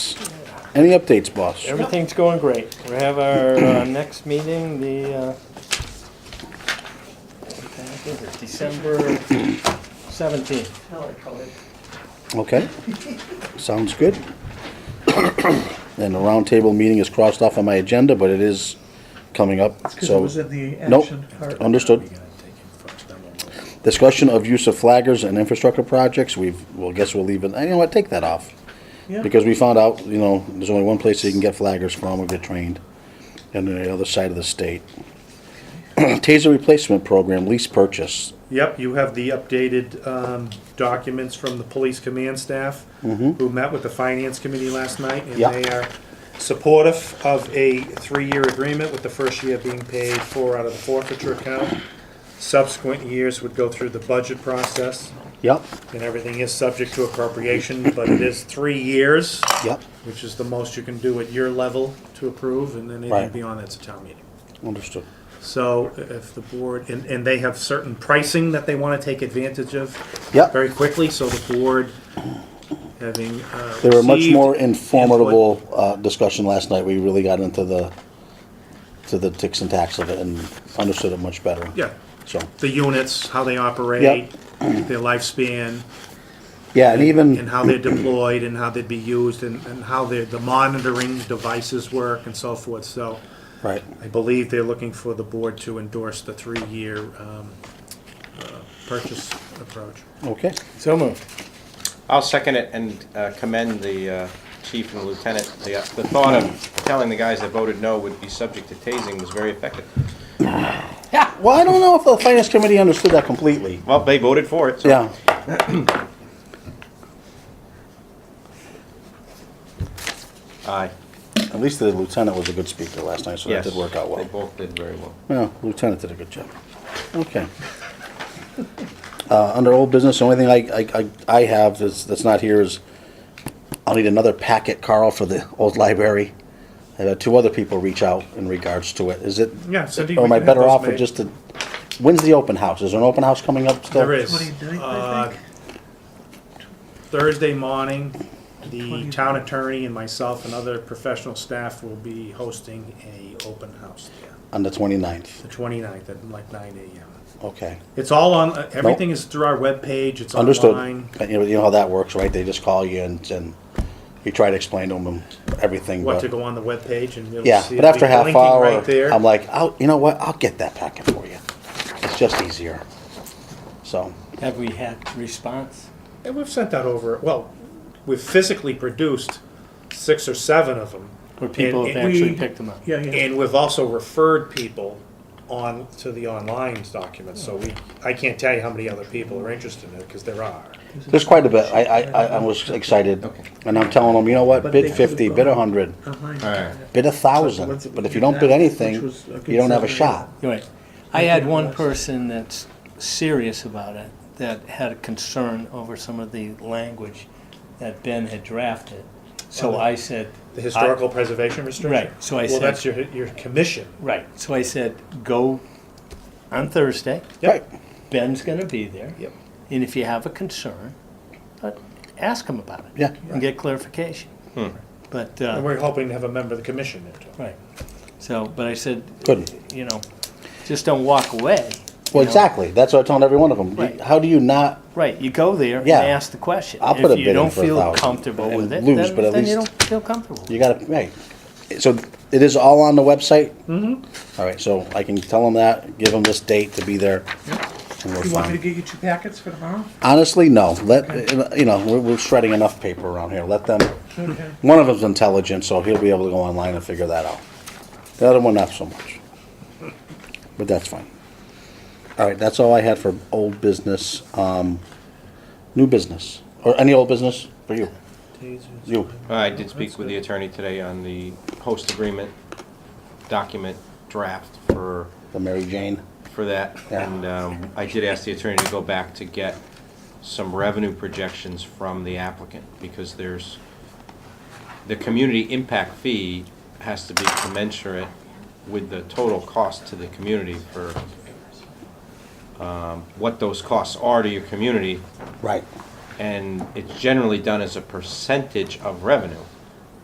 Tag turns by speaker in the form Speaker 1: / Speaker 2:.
Speaker 1: Any updates, boss?
Speaker 2: Everything's going great. We have our uh, next meeting, the, uh, December 17th.
Speaker 1: Okay, sounds good. And the roundtable meeting is crossed off on my agenda, but it is coming up,
Speaker 3: Because it
Speaker 1: so.
Speaker 3: was in the
Speaker 1: Nope,
Speaker 3: action part.
Speaker 1: understood. Discussion of use of flaggers and infrastructure projects, we've, well, guess we'll leave it, you know what, take that off.
Speaker 3: Yeah.
Speaker 1: Because we found out, you know, there's only one place you can get flaggers from or get trained, and on the other side of the state. Taser replacement program, lease purchase,
Speaker 4: Yep, you have the updated um, documents from the police command staff, who met with the finance committee last night, and
Speaker 1: Yeah.
Speaker 4: they are supportive of a three-year agreement, with the first year being paid for out of the forfeiture account. Subsequent years would go through the budget process,
Speaker 1: yep,
Speaker 4: and everything is subject to appropriation, but it is three years,
Speaker 1: yep,
Speaker 4: which is the most you can do at your level to approve, and then anything
Speaker 1: Right.
Speaker 4: beyond that's a town meeting.
Speaker 1: understood.
Speaker 4: So if the board, and, and they have certain pricing that they want to take advantage of
Speaker 1: Yep.
Speaker 4: very quickly, so the board, having uh,
Speaker 1: They were much
Speaker 4: received
Speaker 1: more
Speaker 4: input-
Speaker 1: informative uh, discussion last night. We really got into the, to the ticks and tacks of it and understood it much better.
Speaker 4: Yeah,
Speaker 1: So,
Speaker 4: the units, how they operate, their lifespan,
Speaker 1: yeah, and
Speaker 4: and
Speaker 1: even,
Speaker 4: how they're deployed, and how they'd be used, and, and how the, the monitoring devices work and so forth, so
Speaker 1: right,
Speaker 4: I believe they're looking for the board to endorse the three-year um, uh, purchase approach.
Speaker 1: okay.
Speaker 2: So moved.
Speaker 5: I'll second it and uh, commend the uh, chief and lieutenant. The uh, the thought of telling the guys that voted no would be subject to tasing was very effective.
Speaker 1: Well, I don't know if the finance committee understood that completely.
Speaker 5: Well, they voted for it, so.
Speaker 1: Yeah.
Speaker 5: Aye.
Speaker 1: At least the lieutenant was a good speaker last night, so that
Speaker 5: Yes.
Speaker 1: did work out well.
Speaker 5: They both did very well.
Speaker 1: Yeah, Lieutenant did a good job. Okay. Uh, under old business, the only thing I, I, I I have that's, that's not here is, I'll need another packet, Carl, for the old library. I had two other people reach out in regards to it. Is it?
Speaker 4: Yeah, Cindy,
Speaker 1: Or
Speaker 4: we
Speaker 1: am I
Speaker 4: can have
Speaker 1: better
Speaker 4: those
Speaker 1: off with
Speaker 4: made.
Speaker 1: just the, when's the open house? Is there an open house coming up still?
Speaker 4: There is.
Speaker 3: 29th, I
Speaker 4: uh,
Speaker 3: think.
Speaker 4: Thursday morning, the
Speaker 3: 29th.
Speaker 4: town attorney and myself and other professional staff will be hosting a open house, there,
Speaker 1: On the twenty-ninth.
Speaker 4: the 29th at like nine AM.
Speaker 1: Okay.
Speaker 4: It's all on, uh, everything is through our webpage, it's
Speaker 1: Understood.
Speaker 4: online.
Speaker 1: But You know, you know how that works, right? They just call you and, and you try to explain to them everything,
Speaker 4: What
Speaker 1: but-
Speaker 4: to go on the webpage and you'll see.
Speaker 1: Yeah, but
Speaker 4: it'll
Speaker 1: after
Speaker 4: be
Speaker 1: half
Speaker 4: blinking
Speaker 1: hour,
Speaker 4: right there.
Speaker 1: I'm like, I'll, you know what? I'll get that packet for you. It's just easier. So,
Speaker 2: Have we had response?
Speaker 4: And we've sent that over, well, we've physically produced six or seven of them.
Speaker 2: Where people
Speaker 4: And-
Speaker 2: have
Speaker 4: and
Speaker 2: actually
Speaker 4: we-
Speaker 2: picked them up?
Speaker 3: Yeah, yeah.
Speaker 4: And we've also referred people on to the online documents, so we, I can't tell you how many other people are interested in it, because there are.
Speaker 1: there's quite a bit. I, I, I- I was excited.
Speaker 5: Okay.
Speaker 1: And I'm telling them, you know what?
Speaker 3: But they
Speaker 1: Bid
Speaker 3: could've
Speaker 1: fifty, bid a
Speaker 3: gone.
Speaker 1: hundred,
Speaker 3: Behind.
Speaker 5: Alright.
Speaker 1: bid a
Speaker 3: What's
Speaker 1: thousand.
Speaker 3: it-
Speaker 1: But if you don't bid
Speaker 3: that,
Speaker 1: anything,
Speaker 3: which was a
Speaker 1: you don't have a
Speaker 3: concern.
Speaker 1: shot.
Speaker 2: You're Right. I had one person that's serious about it, that had a concern over some of the language that Ben had drafted. So
Speaker 4: Uh-huh.
Speaker 2: I said,
Speaker 4: The historical preservation restriction?
Speaker 2: Right, so I
Speaker 4: Well,
Speaker 2: said-
Speaker 4: that's your, your commission.
Speaker 2: right, so I said, go on Thursday,
Speaker 1: Right.
Speaker 2: Ben's gonna be there.
Speaker 4: Yep.
Speaker 2: And if you have a concern, uh, ask him about it.
Speaker 1: Yeah. Hmm.
Speaker 2: And get clarification. But,
Speaker 4: And
Speaker 2: uh,
Speaker 4: we're hoping to have a member of the commission there too.
Speaker 2: right, so, but I said,
Speaker 1: Good.
Speaker 2: you know, just don't walk away. you
Speaker 1: Well,
Speaker 2: know.
Speaker 1: exactly. That's what I'm telling every one of them.
Speaker 2: Right.
Speaker 1: How do you not?
Speaker 2: Right, you go there and
Speaker 1: Yeah.
Speaker 2: ask the question.
Speaker 1: I'll put a bid in for
Speaker 2: If
Speaker 1: a
Speaker 2: you don't feel
Speaker 1: thousand
Speaker 2: comfortable
Speaker 1: and
Speaker 2: with it,
Speaker 1: lose,
Speaker 2: then
Speaker 1: but at
Speaker 2: then you
Speaker 1: least-
Speaker 2: don't feel comfortable.
Speaker 1: You gotta, hey. So it is all on the website? Mm-hmm. All right, so I can tell them that, give them this date to be there. and we're
Speaker 3: You want
Speaker 1: fine.
Speaker 3: me to get you two packets for tomorrow?
Speaker 1: Honestly, no. Let, you know, we're, we're shredding enough paper around here. Let them,
Speaker 3: Okay.
Speaker 1: one of them's intelligent, so he'll be able to go online and figure that out. The other one, not so much. But that's fine. All right, that's all I had for old business. Um, new business, or any old business for you? You,
Speaker 5: I did speak with the attorney today on the host agreement document draft for,
Speaker 1: the Mary Jane.
Speaker 5: for that.
Speaker 1: Yeah.
Speaker 5: And um, I did ask the attorney to go back to get some revenue projections from the applicant, because there's, the community impact fee has to be commensurate with the total cost to the community for um, what those costs are to your community
Speaker 1: Right.
Speaker 5: and it's generally done as a percentage of revenue.